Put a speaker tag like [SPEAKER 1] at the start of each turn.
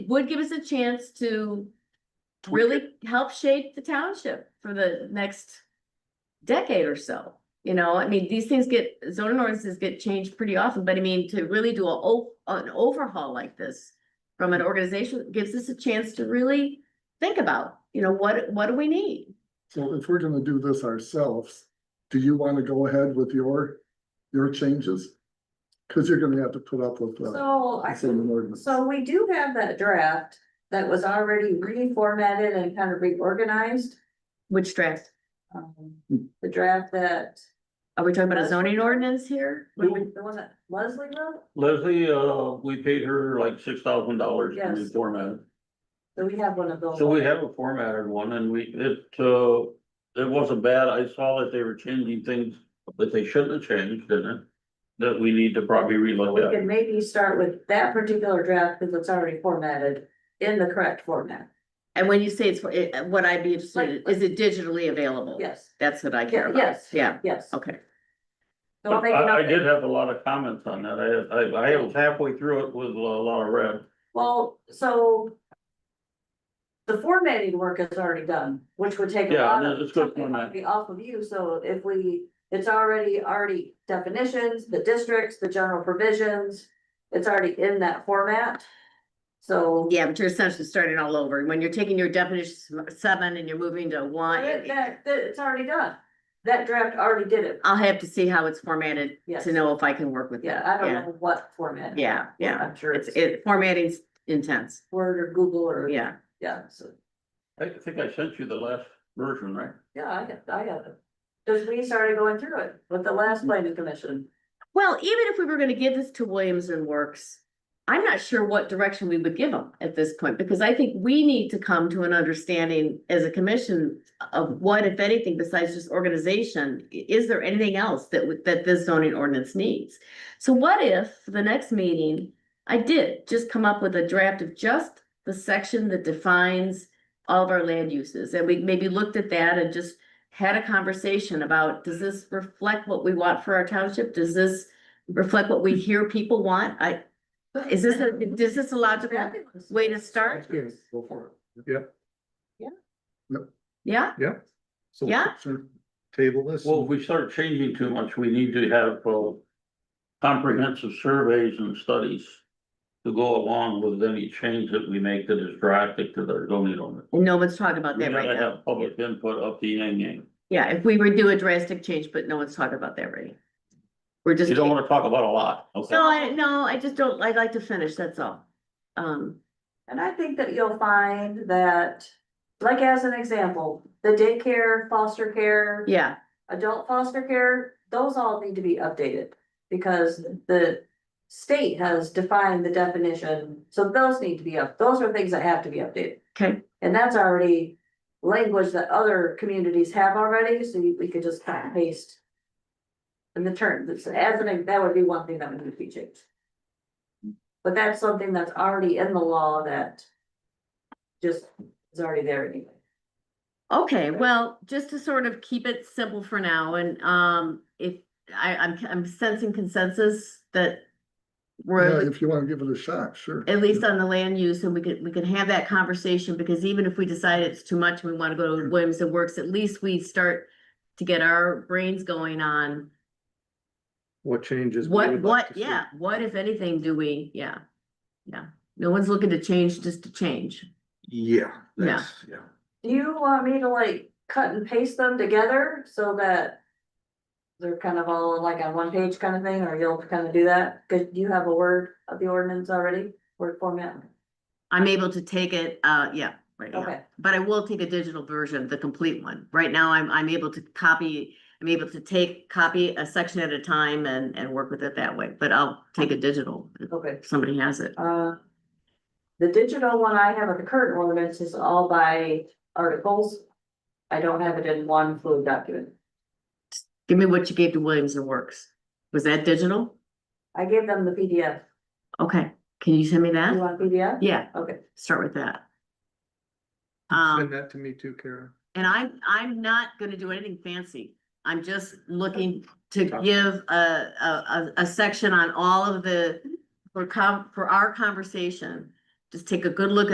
[SPEAKER 1] would give us a chance to
[SPEAKER 2] Tweak it.
[SPEAKER 1] really help shape the township for the next decade or so. You know, I mean, these things get, zoning ordinances get changed pretty often, but I mean, to really do a, o- an overhaul like this from an organization gives us a chance to really think about, you know, what, what do we need?
[SPEAKER 3] So if we're gonna do this ourselves, do you wanna go ahead with your, your changes? Cause you're gonna have to put up with. uh,
[SPEAKER 4] So I
[SPEAKER 3] the same ordinance.
[SPEAKER 4] So we do have that draft that was already reformatted and kind of reorganized.
[SPEAKER 1] Which draft?
[SPEAKER 4] Um, The draft that,
[SPEAKER 1] Are we talking about a zoning ordinance here?
[SPEAKER 4] the
[SPEAKER 2] Hmm.
[SPEAKER 4] one that Leslie wrote,
[SPEAKER 2] Leslie, uh, we paid her like six thousand dollars to
[SPEAKER 4] Yes.
[SPEAKER 2] reformat.
[SPEAKER 4] so we have one of those.
[SPEAKER 2] So we have a formatted one and we, it, uh, it wasn't bad. I saw that they were changing things that they shouldn't have changed in it. That we need to probably
[SPEAKER 4] We
[SPEAKER 2] relook at.
[SPEAKER 4] can maybe start with that particular draft because it's already formatted in the correct format.
[SPEAKER 1] And when you say it's, it- what I'd be interested, in is it digitally available?
[SPEAKER 4] Yes,
[SPEAKER 1] That's what I care about.
[SPEAKER 4] Yes.
[SPEAKER 1] Yeah,
[SPEAKER 4] yes.
[SPEAKER 1] okay.
[SPEAKER 4] So I'll make
[SPEAKER 2] I, I
[SPEAKER 4] note-
[SPEAKER 2] did have a lot of comments on that. I, I, I was halfway through it with a lot of red.
[SPEAKER 4] Well, so. The formatting work is already done, which would take a
[SPEAKER 2] Yeah,
[SPEAKER 4] lot
[SPEAKER 2] no,
[SPEAKER 4] of,
[SPEAKER 2] it's good
[SPEAKER 4] something might
[SPEAKER 2] format.
[SPEAKER 4] be off of you, so if we, it's already, already definitions, the districts, the general provisions. It's already in that format. So.
[SPEAKER 1] Yeah, but you're essentially starting all over. When you're taking your definition s- seven and you're moving to one.
[SPEAKER 4] That,
[SPEAKER 1] it-
[SPEAKER 4] that- that- it's already done. That draft already did it.
[SPEAKER 1] I'll have to see how it's formatted
[SPEAKER 4] Yes.
[SPEAKER 1] to know if I can work with
[SPEAKER 4] Yeah,
[SPEAKER 1] that.
[SPEAKER 4] I don't know what format.
[SPEAKER 1] Yeah, yeah.
[SPEAKER 4] I'm sure
[SPEAKER 1] It's,
[SPEAKER 4] it's
[SPEAKER 1] it, formatting's intense.
[SPEAKER 4] Word or Google or,
[SPEAKER 1] Yeah.
[SPEAKER 4] yeah, so,
[SPEAKER 2] I think I sent you the last version, right?
[SPEAKER 4] yeah, I got, I got it. Cause we started going through it with the last planning commission.
[SPEAKER 1] Well, even if we were gonna give this to Williams and Works, I'm not sure what direction we would give them at this point, because I think we need to come to an understanding as a commission of what, if anything, besides just organization, i- is there anything else that, would- that this zoning ordinance needs? So what if, for the next meeting, I did just come up with a draft of just the section that defines all of our land uses, and we maybe looked at that and just had a conversation about, does this reflect what we want for our township? Does this reflect what we hear people want? I, is this, a is this a logical? way to start?
[SPEAKER 3] Yes, Go for it. Yep.
[SPEAKER 1] Yeah,
[SPEAKER 3] Yep. So
[SPEAKER 1] Yeah.
[SPEAKER 3] sure, Table this.
[SPEAKER 2] Well, if we start changing too much, we need to have, uh, comprehensive surveys and studies to go along with any change that we make that is drastic to the zoning ordinance.
[SPEAKER 1] and no one's talking about
[SPEAKER 2] We
[SPEAKER 1] that right
[SPEAKER 2] gotta
[SPEAKER 1] now.
[SPEAKER 2] have public input up the E. yang yang.
[SPEAKER 1] Yeah, if we were to do a drastic change, but no one's talking about that right now. We're just.
[SPEAKER 2] You don't wanna talk about a lot, okay?
[SPEAKER 1] No, I, no, I just don't, I'd like to finish, that's all. Um,
[SPEAKER 4] And I think that you'll find that, like as an example, the daycare, foster care,
[SPEAKER 1] yeah,
[SPEAKER 4] adult foster care, those all need to be updated. Because the state has defined the definition, so those need to be up, those are things that have to be updated.
[SPEAKER 1] okay,
[SPEAKER 4] And that's already language that other communities have already, so you- we could just kind of paste. And the term, that's as an, that would be one thing that would need to be changed. But that's something that's already in the law that. Just is already there anyway.
[SPEAKER 1] okay, well, just to sort of keep it simple for now, and, um, if, I, I'm, I'm sensing consensus that.
[SPEAKER 3] Yeah,
[SPEAKER 1] We're
[SPEAKER 3] if you wanna give it a shot, sure.
[SPEAKER 1] at least on the land use, and we could, we can have that conversation, because even if we decide it's too much, and we wanna go to Williams and Works, at least we start. To get our brains going on
[SPEAKER 5] What changes? we
[SPEAKER 1] what,
[SPEAKER 5] would like
[SPEAKER 1] what,
[SPEAKER 5] to see.
[SPEAKER 1] yeah, what if anything do we, yeah. Yeah, no one's looking to change just to change.
[SPEAKER 5] Yeah,
[SPEAKER 1] Yeah.
[SPEAKER 5] that's, yeah.
[SPEAKER 4] Do you want me to like cut and paste them together so that? They're kind of all like on one page kind of thing, or you'll kind of do that? Cause you have a word of the ordinance already, word format?
[SPEAKER 1] I'm able to take it, uh, yeah, right, yeah.
[SPEAKER 4] Okay.
[SPEAKER 1] but I will take a digital version, the complete one. Right now, I'm, I'm able to copy, I'm able to take, copy a section at a time and, and work with it that way, but I'll take a digital
[SPEAKER 4] Okay,
[SPEAKER 1] if somebody has it.
[SPEAKER 4] oh, uh. The digital one I have at the current ordinance is all by articles. I don't have it in one fluid document.
[SPEAKER 1] Give me what you gave to Williams and Works. Was that digital?
[SPEAKER 4] I gave them the PDF.
[SPEAKER 1] Okay, can you send me
[SPEAKER 4] You
[SPEAKER 1] that?
[SPEAKER 4] want PDF?
[SPEAKER 1] Yeah,
[SPEAKER 4] Okay,
[SPEAKER 1] start with that.
[SPEAKER 5] Send
[SPEAKER 1] Um,
[SPEAKER 5] that to me too, Kara.
[SPEAKER 1] and I'm, I'm not gonna do anything fancy. I'm just looking to give a, a, a, a section on all of the, for com, for our conversation Just take a good look